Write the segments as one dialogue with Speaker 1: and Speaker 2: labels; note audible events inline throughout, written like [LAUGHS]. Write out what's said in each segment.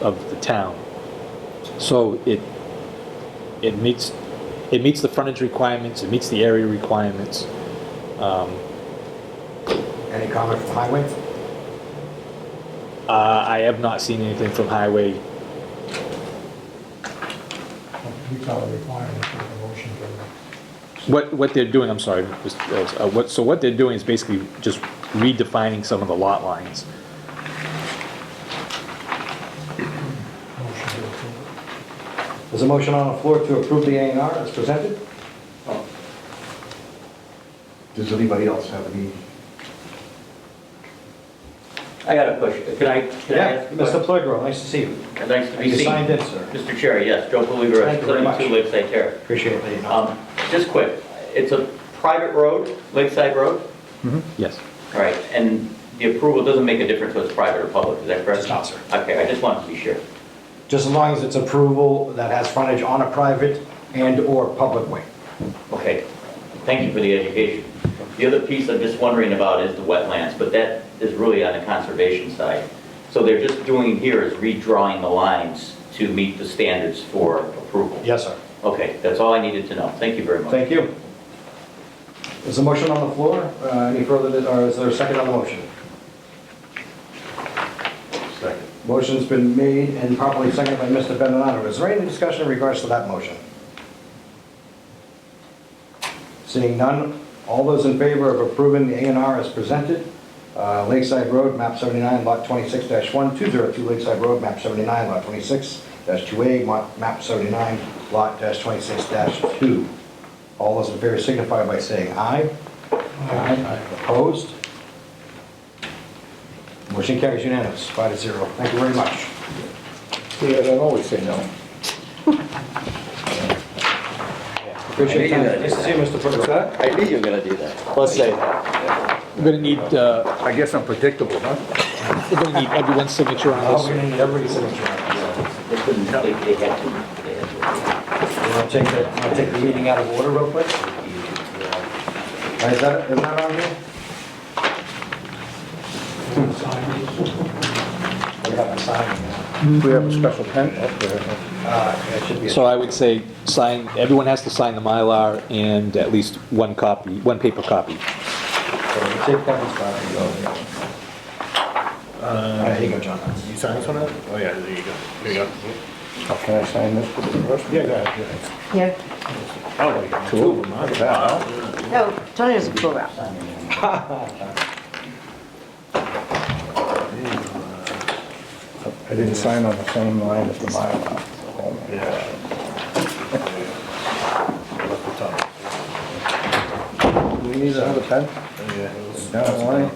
Speaker 1: of the town. So it, it meets, it meets the frontage requirements, it meets the area requirements. Um,
Speaker 2: Any comment from highway?
Speaker 1: Uh, I have not seen anything from highway.
Speaker 3: We call it requirement for the motion to
Speaker 1: What, what they're doing, I'm sorry, Mr. Ellis, uh, what, so what they're doing is basically just redefining some of the lot lines.
Speaker 3: motion to approve.
Speaker 2: There's a motion on the floor to approve the A and R as presented?
Speaker 4: Does anybody else have any?
Speaker 5: I got a question. Could I, can I
Speaker 2: Yeah,
Speaker 5: ask? a
Speaker 2: Mr.
Speaker 5: question?
Speaker 2: Plegro, nice to see you.
Speaker 5: Nice to be
Speaker 2: You
Speaker 5: seen.
Speaker 2: signed in, sir.
Speaker 5: Mr. Chair, yes, Joe Palivra,
Speaker 2: Thank you very
Speaker 5: 72 Lakeside Terrace.
Speaker 2: Appreciate the acknowledgement.
Speaker 5: Um, Just quick, it's a private road, Lakeside Road?
Speaker 1: Yes.
Speaker 5: All right, and the approval doesn't make a difference whether it's private or public, is that correct?
Speaker 2: It's not, sir.
Speaker 5: Okay, I just wanted to be sure.
Speaker 2: Just as long as it's approval that has frontage on a private and/or public way.
Speaker 5: Okay, thank you for the education. The other piece I'm just wondering about is the wetlands, but that is really on the conservation side. So they're just doing here is redrawing the lines to meet the standards for approval?
Speaker 2: Yes, sir.
Speaker 5: Okay, that's all I needed to know. Thank you very much.
Speaker 2: Thank you. There's a motion on the floor. Uh, Any further, or is there a second on the motion?
Speaker 4: Second.
Speaker 2: Motion's been made and properly seconded by Mr. Benonato. Is there any discussion in regards to that motion? Seeing none, all those in favor of approving the A and R as presented, uh, Lakeside Road, map 79, lot 26-1, 202 Lakeside Road, map 79, lot 26-2A, mo- map 79, lot dash 26-2. All those in favor signify by saying aye. Aye. Opposed? Motion carries unanimous, five to zero. Thank you very much.
Speaker 4: Yeah, they always say no.
Speaker 2: Appreciate your time. Nice to see you, Mr. Foote.
Speaker 5: I knew you were gonna do that.
Speaker 1: Let's say, we're gonna need, uh,
Speaker 4: I guess I'm predictable, huh?
Speaker 1: we're gonna need everyone's signature on
Speaker 2: Oh,
Speaker 1: this.
Speaker 2: we're gonna need everybody's signature.
Speaker 5: They couldn't, they they had to, they had
Speaker 2: You wanna take the, you wanna take the meeting out of order real quick? Is that, is that on here? We haven't signed it.
Speaker 4: We have a special pen up there.
Speaker 2: Uh, it should be.
Speaker 1: So I would say sign, everyone has to sign the Mylar and at least one copy, one paper copy.
Speaker 2: Take that one spot. All right, here you go, John.
Speaker 6: Uh, You sign this one out? Oh, yeah, there you go. Here you go.
Speaker 4: Oh, Can I sign this with the rest?
Speaker 6: Yeah, go ahead.
Speaker 7: Yeah,
Speaker 4: Two of them, huh? Wow.
Speaker 7: no, Tony doesn't pull out.
Speaker 4: I didn't sign on the same line as the Mylar. Oh, my God. Oh, Do we need another pen? Down the line?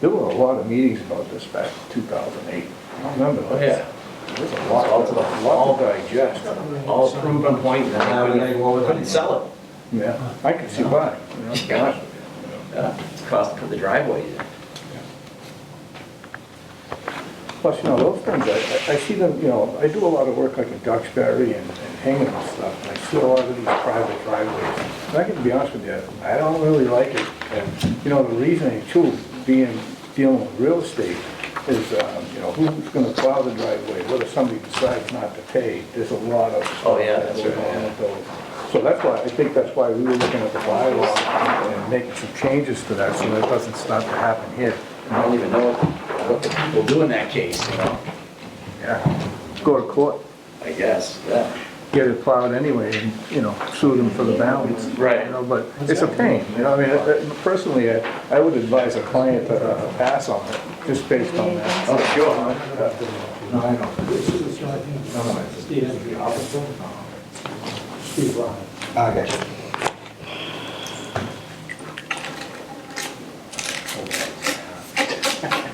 Speaker 4: There were a lot of meetings about this back in 2008. I remember that. There was a lot, a lot to digest.
Speaker 5: to. All approved on point, and
Speaker 2: Now we're gonna go over the-
Speaker 5: Couldn't sell
Speaker 4: Yeah, I can see why. you [LAUGHS] know, to be honest with you, you know.
Speaker 5: it. Uh, It's cost for the driveway.
Speaker 4: Plus, you know, those things, I, I- I see them, you know, I do a lot of work like in Duxbury and and Hingham and stuff, and I see a lot of these private driveways. And I can be honest with you, I don't really like it. And, you know, the reasoning too, being, dealing with real estate is, um, you know, who's gonna plow the driveway, what if somebody decides not to pay? There's a lot of.
Speaker 5: Oh, yeah, that's right,
Speaker 4: stuff going on
Speaker 5: yeah.
Speaker 4: with those. So that's why, I think that's why we were looking at the bylaw and making some changes to that, so that doesn't start to happen here.
Speaker 5: I don't even know what the people do in that case, you know?
Speaker 4: Yeah, go to court,
Speaker 5: I guess, yeah.
Speaker 4: get it plowed anyway, and, you know, sue them for the balance.
Speaker 5: Right.
Speaker 4: You know, but it's a pain, you know, I mean, I- I- personally, I I would advise a client to uh, pass on it, just based on that.
Speaker 5: Oh, sure.
Speaker 2: No, I don't.
Speaker 3: It's not him.
Speaker 2: No, no, it's
Speaker 3: Steve, that's the officer. Steve Ryan.
Speaker 2: Okay.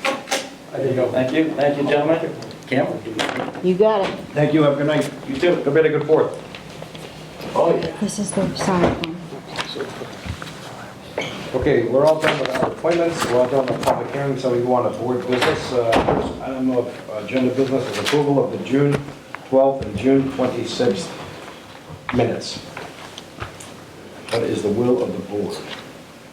Speaker 5: Thank you, thank you, gentlemen. Cameron?
Speaker 7: You got it.
Speaker 2: Thank you, have a good night. You too. Go bed, a good fourth.
Speaker 5: Oh, yeah.
Speaker 7: This is the signed one.
Speaker 2: Okay, we're all done with our appointments, we're all done with public hearings, so we go on to board business. Uh, First item of agenda business is approval of the June 12th and June 26th minutes. What is the will of the board?